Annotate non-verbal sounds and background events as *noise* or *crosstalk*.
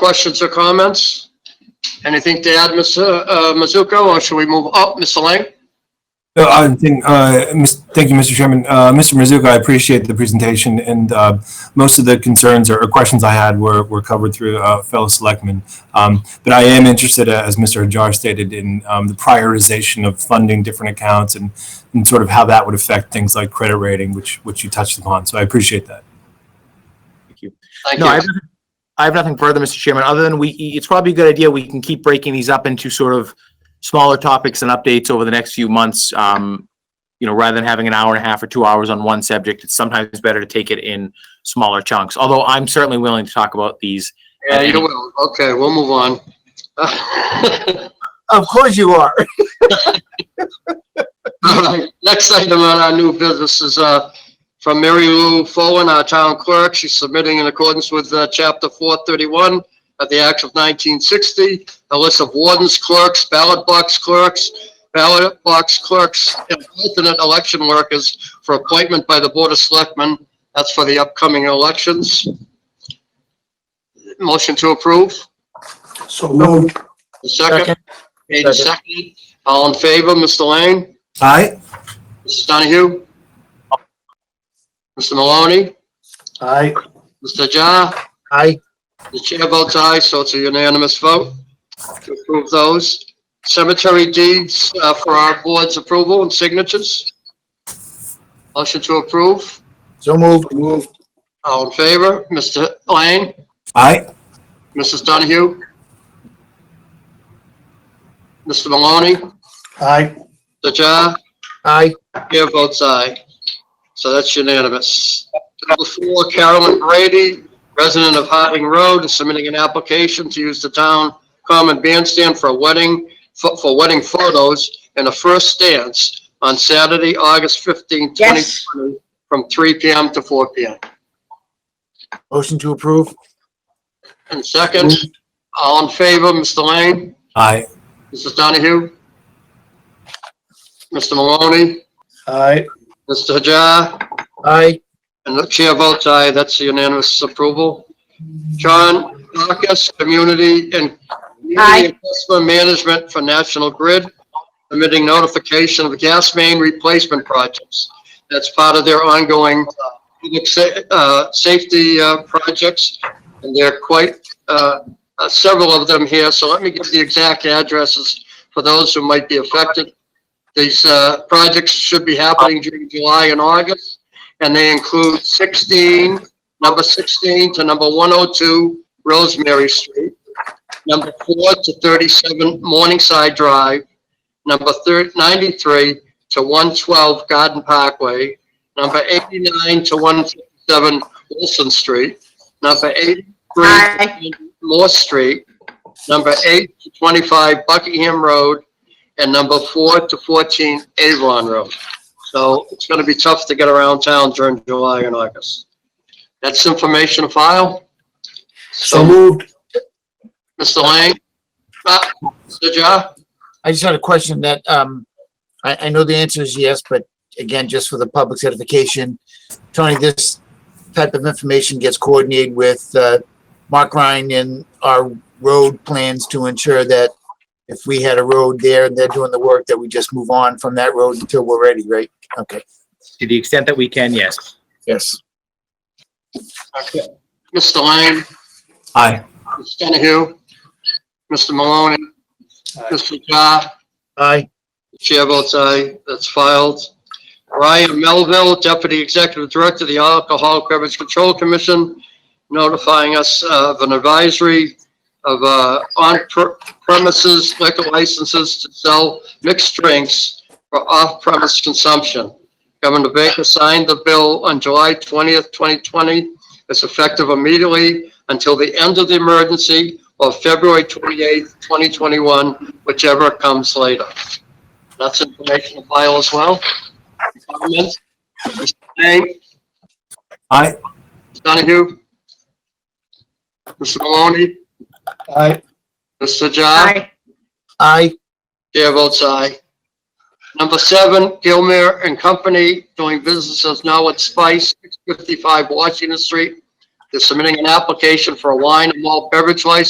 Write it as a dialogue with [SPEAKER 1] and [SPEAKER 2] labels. [SPEAKER 1] Questions or comments? Anything to add, Mr. uh, Mizuko, or should we move oh, up, Mr. Lang?
[SPEAKER 2] No, I think, uh, mis- Thank you, Mr. Chairman. Uh, Mr. Mizuka, I appreciate the presentation, and uh, most of the concerns or or questions I had were were covered through uh, fellow selectmen. Um, But I am interested, uh, as Mr. Hajar stated, in um, the prioritization of funding different accounts and and sort of how that would affect things like credit rating, which which you touched upon, so I appreciate that.
[SPEAKER 1] Thank
[SPEAKER 3] No, I have,
[SPEAKER 1] you.
[SPEAKER 3] nothing- I have nothing further, Mr. Chairman, other than we, it's probably a good idea, we can keep breaking these up into sort of smaller topics and updates over the next few months. Um, you know, rather than having an hour and a half or two hours on one subject, it's sometimes better to take it in smaller chunks, although I'm certainly willing to talk about these.
[SPEAKER 1] Yeah, you will. Okay, we'll move on. *laughs* All
[SPEAKER 3] Of course you are.
[SPEAKER 1] right. *laughs* Next item on our new business is uh, from Mary Lou Follin, our town clerk. She's submitting in accordance with uh, Chapter 431 of the Act of 1960, a list of wardens, clerks, ballot box clerks, ballot box clerks, and alternate election workers for appointment by the Board of Selectmen. That's for the upcoming elections. Motion to approve?
[SPEAKER 4] So moved.
[SPEAKER 1] The Second, Made and seconded. All in favor, Mr. Lane?
[SPEAKER 2] Aye?
[SPEAKER 1] Mrs. Donahue? Mr. Maloney?
[SPEAKER 4] Aye.
[SPEAKER 1] Mr. Jar?
[SPEAKER 3] Aye.
[SPEAKER 1] The chair votes aye, so it's a unanimous vote to approve those. Cemetery deeds uh, for our board's approval and signatures. Motion to approve.
[SPEAKER 4] So moved. Moved.
[SPEAKER 1] All in favor, Mr. Lane?
[SPEAKER 2] Aye?
[SPEAKER 1] Mrs. Donahue? Mr. Maloney?
[SPEAKER 4] Aye.
[SPEAKER 1] Mr. Jar?
[SPEAKER 3] Aye.
[SPEAKER 1] Chair votes aye. So that's unanimous. Number four, Carolyn Brady, resident of Harding Road, is submitting an application to use the town common bandstand for a wedding, for for wedding photos and a first dance on Saturday, August 15,
[SPEAKER 5] Yes.
[SPEAKER 1] 2020, from 3 PM to 4 PM.
[SPEAKER 3] Motion to approve.
[SPEAKER 1] And second, all in favor, Mr. Lane,
[SPEAKER 2] Aye.
[SPEAKER 1] Mrs. Donahue, Mr. Maloney,
[SPEAKER 4] Aye.
[SPEAKER 1] Mr. Hajar,
[SPEAKER 3] Aye.
[SPEAKER 1] And the chair votes aye, that's unanimous approval. John Marcus, Community and
[SPEAKER 5] Aye.
[SPEAKER 1] Community and Customer Management for National Grid, submitting notification of gas main replacement projects. That's part of their ongoing uh, public sa- uh, safety uh, projects, and they're quite, uh, uh, several of them here, so let me give the exact addresses for those who might be affected. These uh, projects should be happening during July and August and they include 16, number 16 to number 102 Rosemary Street, number 4 to 37 Morningside Drive, number thir- 93 to 112 Garden Parkway, number 89 to 157 Wilson Street, number 83
[SPEAKER 5] Aye.
[SPEAKER 1] Moore Street, number 8 to 25 Buckingham Road, and number 4 to 14 Avon Road. So it's going to be tough to get around town during July and August. That's information to file.
[SPEAKER 4] So
[SPEAKER 1] So,
[SPEAKER 4] moved.
[SPEAKER 1] Mr. Lang? Uh, Mr. Ja?
[SPEAKER 6] I just had a question that, um, I, I know the answer is yes, but again, just for the public's edification, Tony, this type of information gets coordinated with, uh, Mark Ryan and our road plans to ensure that if we had a road there and they're doing the work, that we just move on from that road until we're ready, right? Okay.
[SPEAKER 3] To the extent that we can, yes.
[SPEAKER 6] Yes.
[SPEAKER 1] Mr. Lang?
[SPEAKER 2] Aye.
[SPEAKER 1] Mr. Donahue? Mr. Maloney? Mr. Ja?
[SPEAKER 6] Aye.
[SPEAKER 1] Chair votes aye, that's filed. Ryan Melville, Deputy Executive Director of the Alcohol Beverage Control Commission, notifying us uh, of an advisory of uh, on per- premises liquor licenses to sell mixed drinks for off-premise consumption. Governor Baker signed the bill on July 20th, 2020. It's effective immediately until the end of the emergency or February 28th, 2021, whichever comes later. That's information to file as well. Comments? Mr. Lang,
[SPEAKER 2] Aye?
[SPEAKER 1] Mr. Donahue? Mr. Maloney?
[SPEAKER 4] Aye.
[SPEAKER 1] Mr. John?
[SPEAKER 5] Aye.
[SPEAKER 6] Aye.
[SPEAKER 1] Chair votes aye. Number seven, Gilmere and Company doing business as now at Spice, 655 Washington Street. They're submitting an application for a wine and malt beverage license